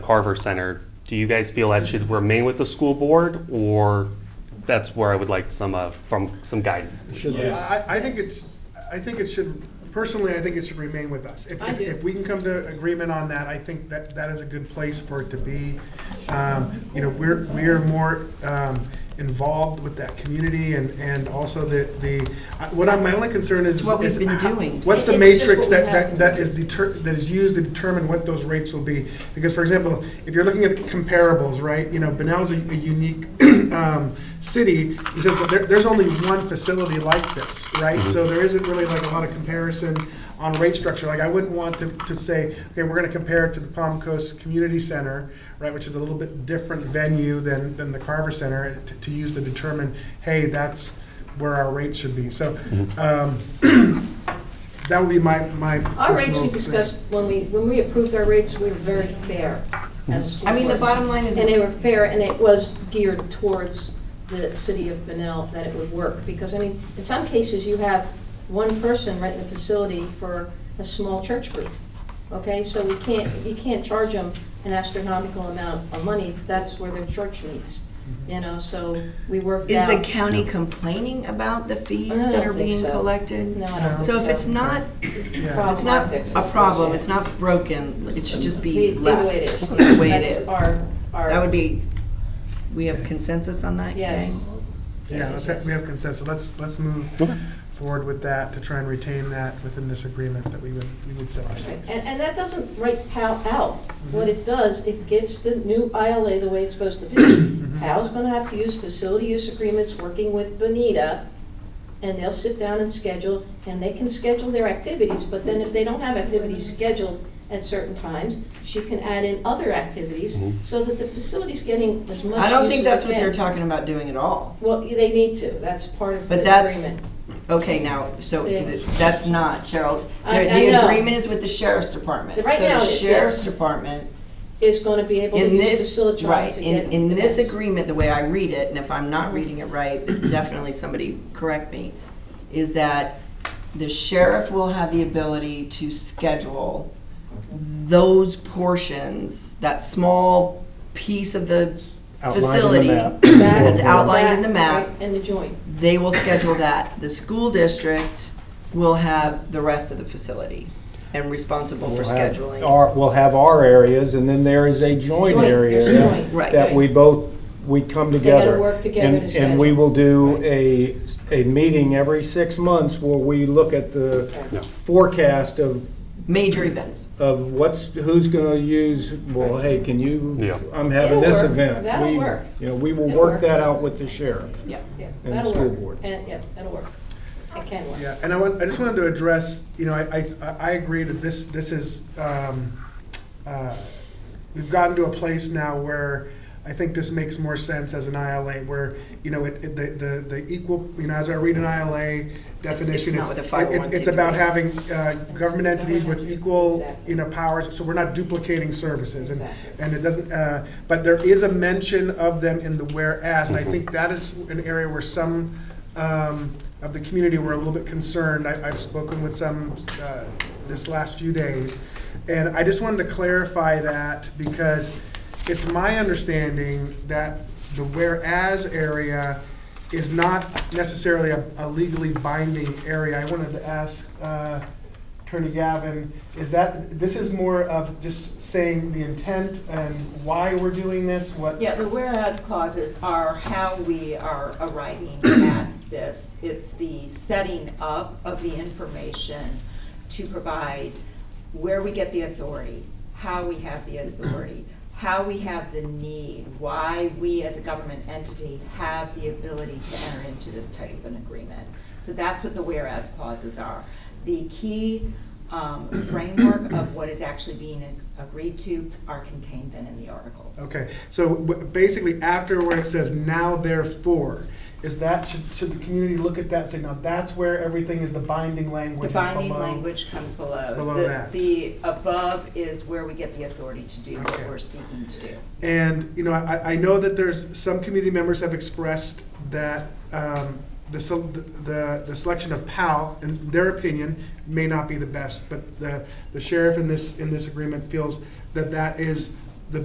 Carver Center, do you guys feel that should remain with the school board, or that's where I would like some, uh, from, some guidance? Should Yes. we- I, I think it's, I think it should, personally, I think it should remain with us. If- I if- do. If we can come to agreement on that, I think that, that is a good place for it to be. Um, You know, we're, we're more um, involved with that community and, and also the, the, I- what I, my only concern is. It's what we've is been ho- doing. What's the It's just matrix what we that, that, have. that is deter, that is used to determine what those rates will be? Because, for example, if you're looking at comparables, right, you know, Benell's a a unique um, city, in the sense that there, there's only one facility like this, right? So there isn't really like a lot of comparison on rate structure. Like, I wouldn't want to, to say, okay, we're gonna compare it to the Palm Coast Community Center, right, which is a little bit different venue than, than the Carver Center, to, to use to determine, hey, that's where our rates should be. So, um, that would be my, my personal. Our rates we thing. discussed, when we, when we approved our rates, we were very fair as a school I mean, the board. bottom line is And they it's- were fair, and it was geared towards the city of Benel that it would work. Because, I mean, in some cases, you have one person renting the facility for a small church group, okay? So we can't, you can't charge them an astronomical amount of money. That's where their church meets, you know, so we worked Is out. the county complaining about the fees I don't that are think being so. collected? No, I don't think So if it's not, Yeah. Problem. it's not Fix it. a problem, it's not broken, it should just The be left. the way it is. The way it That's is. our- our- That would be, we have consensus on that, Yes. gang? Yeah, let's, ha- we have consensus, let's, let's move forward with that to try and retain that within this agreement that we would, we would set And, ourselves. and that doesn't write PAL out. Mm-hmm. What it does, it gives the new ILA the way it's supposed to Mm-hmm. Mm-hmm. be. PAL's gonna have to use facility use agreements, working with Bonita, and they'll sit down and schedule, and they can schedule their activities, but then if they don't have activities scheduled at certain times, she can add in other activities, Mhm. so that the facility's getting as much use as Mm-hmm. I don't think that's what they they're can. talking about doing at all. Well, they need to, that's part of the But agreement. that's, okay, now, so See. that's not, Cheryl. I- The- I know. The agreement is with the sheriff's department. Right now it So the is, yes. sheriff's department Is gonna be able to In use this, facility right, to in, get. Mm-hmm. in this events. agreement, the way I read it, and if I'm not reading it right, definitely somebody correct me, is that the sheriff will have the ability to schedule those portions, that small piece of the facility. That- That's outlined in the that, map. right, And the joint. They will schedule that. The school district will have the rest of the facility and responsible for We'll have scheduling. our- We'll have our areas, and then there is a joint Joint, area. there's a joint. Right. That we both, we come gotta together. work together And- to And we schedule. will do a, a meeting every six months where we look at the No. forecast of, Major events. of what's, who's gonna use, well, hey, can Yeah. you, I'm having It'll this work. event. That'll We- work. You know, we will It'll work. work that out with the sheriff. Yeah. Yeah, And the that'll school work. board. And, yeah, that'll work. It can work. Yeah, and I want, I just wanted to address, you know, I, I, I agree that this, this is, um, uh, we've gotten to a place now where I think this makes more sense as an ILA, where, you know, it, it, the, the, the equal, you know, as I read an ILA definition, It's it's, not with a it's, it's 501c3. about having, uh, government entities with equal, Exactly. you know, powers, so we're not duplicating services, and, Exactly. and it doesn't, uh, but there is a mention of them in the whereas, and I think that is an area where some um, of the community were a little bit concerned. I- I've spoken with some uh, this last few days, and I just wanted to clarify that because it's my understanding that the whereas area is not necessarily a a legally binding area. I wanted to ask uh, Attorney Gavin, is that, this is more of just saying the intent and why we're doing this, what? Yeah, the whereas clauses are how we are arriving at this. It's the setting up of the information to provide where we get the authority, how we have the authority, how we have the need, why we as a government entity have the ability to enter into this type of an agreement. So that's what the whereas clauses are. The key um, framework of what is actually being agreed to are contained then in the articles. Okay, so w- basically after where it says now therefore, is that, should, should the community look at that and say, now that's where everything is the binding The language is binding below? language comes below. below The- that. The above is where we get the authority to do what Okay. we're seeking to do. And, you know, I, I know that there's, some community members have expressed that um, the, sel- the, the selection of PAL, in their opinion, may not be the best, but the, the sheriff in this, in this agreement feels that that is